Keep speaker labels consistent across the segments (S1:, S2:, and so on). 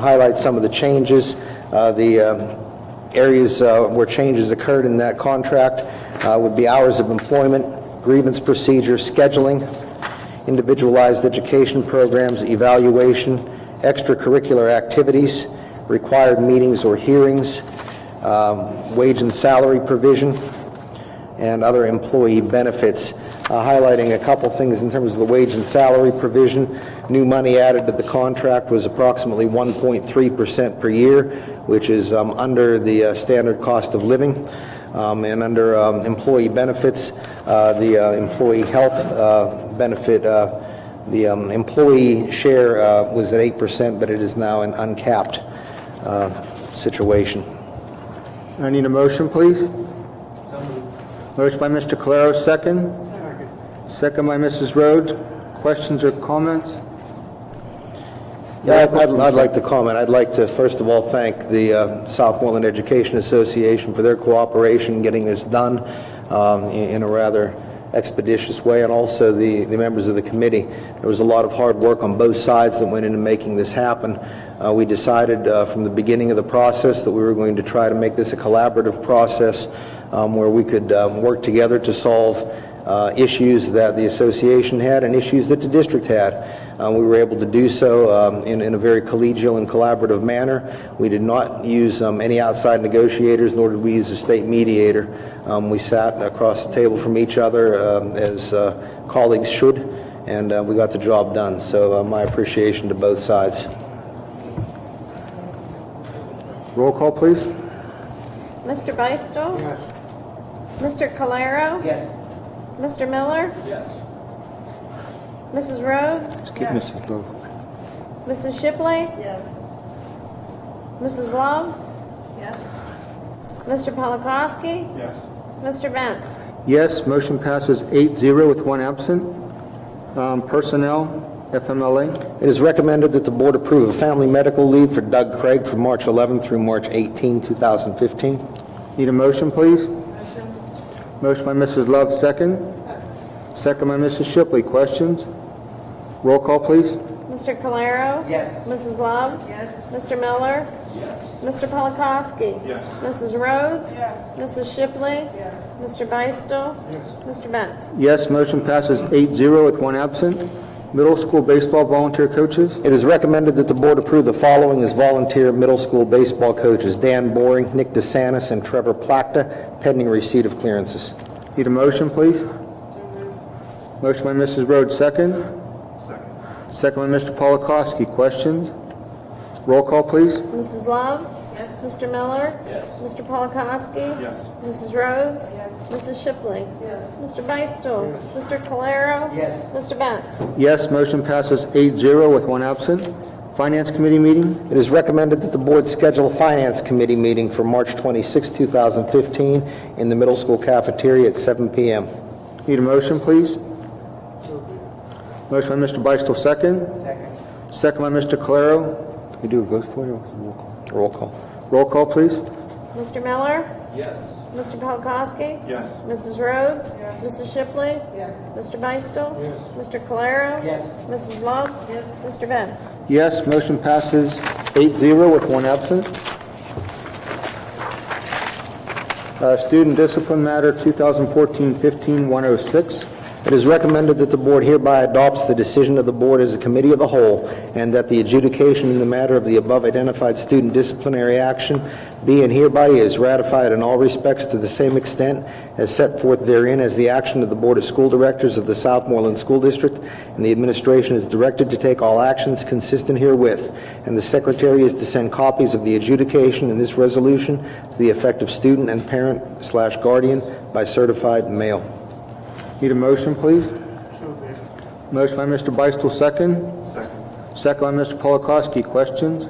S1: highlight some of the changes, uh, the um, areas uh, where changes occurred in that contract uh, would be hours of employment, grievance procedure, scheduling, individualized education programs, evaluation, extracurricular activities, required meetings or hearings, um, wage and salary provision, and other employee benefits, uh, highlighting a couple things in terms of the wage and salary provision. New money added to the contract was approximately 1.3% per year, which is um, under the uh, standard cost of living. Um, And under um, employee benefits, uh, the uh, employee health uh, benefit, uh, the um, employee share uh, was at 8%, but it is now an uncapped uh, situation.
S2: I need a motion, please. Motion by Mr. Calero, second. Second by Mrs. Rhodes. Questions or comments?
S1: Yeah, I'd- I'd I'd like to comment. I'd like to, first of all, thank the uh, Southmoreland Education Association for their cooperation in getting this done um, in in a rather expeditious way, and also the the members of the committee. There was a lot of hard work on both sides that went into making this happen. Uh, We decided uh, from the beginning of the process that we were going to try to make this a collaborative process um, where we could um, work together to solve uh, issues that the association had and issues that the district had. Uh, We were able to do so um, in in a very collegial and collaborative manner. We did not use um, any outside negotiators, nor did we use a state mediator. Um, We sat across the table from each other um, as uh, colleagues should, and uh, we got the job done. So uh, my appreciation to both sides.
S2: Roll call, please.
S3: Mr. Beistel? Yes. Mr. Calero? Yes. Mr. Miller? Yes. Mrs. Rhodes? Yes. Mrs. Shipley? Yes. Mrs. Love? Yes. Mr. Polakowski? Yes. Mr. Benz?
S2: Yes, motion passes 8-0 with one absent. Um, Personnel, FMLA.
S1: It is recommended that the board approve a family medical leave for Doug Craig from March 11 through March 18, 2015.
S2: Need a motion, please? Motion by Mrs. Love, second. Second by Mrs. Shipley. Questions? Roll call, please.
S3: Mr. Calero? Yes. Mrs. Love? Yes. Mr. Miller? Yes. Mr. Polakowski? Yes. Mrs. Rhodes? Yes. Mrs. Shipley? Yes. Mr. Beistel? Yes. Mr. Benz?
S2: Yes, motion passes 8-0 with one absent. Middle school baseball volunteer coaches.
S1: It is recommended that the board approve the following as volunteer middle school baseball coaches: Dan Boring, Nick DeSantis, and Trevor Plakta, pending receipt of clearances.
S2: Need a motion, please? Motion by Mrs. Rhodes, second. Second. Second by Mr. Polakowski. Questions? Roll call, please.
S3: Mrs. Love? Yes. Mr. Miller? Yes. Mr. Polakowski? Yes. Mrs. Rhodes? Yes. Mrs. Shipley? Yes. Mr. Beistel? Yes. Mr. Calero? Yes. Mr. Benz?
S2: Yes, motion passes 8-0 with one absent. Finance Committee meeting.
S1: It is recommended that the board schedule a finance committee meeting for March 26, 2015, in the middle school cafeteria at 7 p.m.
S2: Need a motion, please? Motion by Mr. Beistel, second. Second. Second by Mr. Calero. Can we do a vote for you?
S1: Roll call.
S2: Roll call, please.
S3: Mr. Miller? Yes. Mr. Polakowski? Yes. Mrs. Rhodes? Yes. Mrs. Shipley? Yes. Mr. Beistel? Yes. Mr. Calero? Yes. Mrs. Love? Yes. Mr. Benz?
S2: Yes, motion passes 8-0 with one absent. Uh, Student Discipline Matter 2014-15-106.
S1: It is recommended that the board hereby adopts the decision of the board as a committee of the whole, and that the adjudication in the matter of the above identified student disciplinary action be and hereby is ratified in all respects to the same extent as set forth therein as the action of the Board of School Directors of the Southmoreland School District, and the administration is directed to take all actions consistent herewith, and the secretary is to send copies of the adjudication in this resolution to the effective student and parent slash guardian by certified mail.
S2: Need a motion, please? Motion by Mr. Beistel, second. Second. Second by Mr. Polakowski. Questions?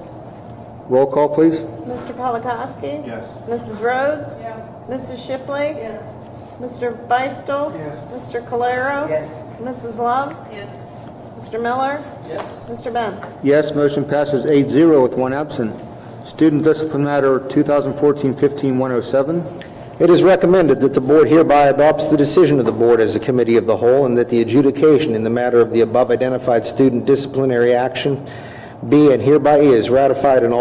S2: Roll call, please.
S3: Mr. Polakowski? Yes. Mrs. Rhodes? Yes. Mrs. Shipley? Yes. Mr. Beistel? Yes. Mr. Calero? Yes. Mrs. Love? Yes. Mr. Miller? Yes. Mr. Benz?
S2: Yes, motion passes 8-0 with one absent. Student Discipline Matter 2014-15-107.
S1: It is recommended that the board hereby adopts the decision of the board as a committee of the whole, and that the adjudication in the matter of the above identified student disciplinary action Be and hereby is ratified in all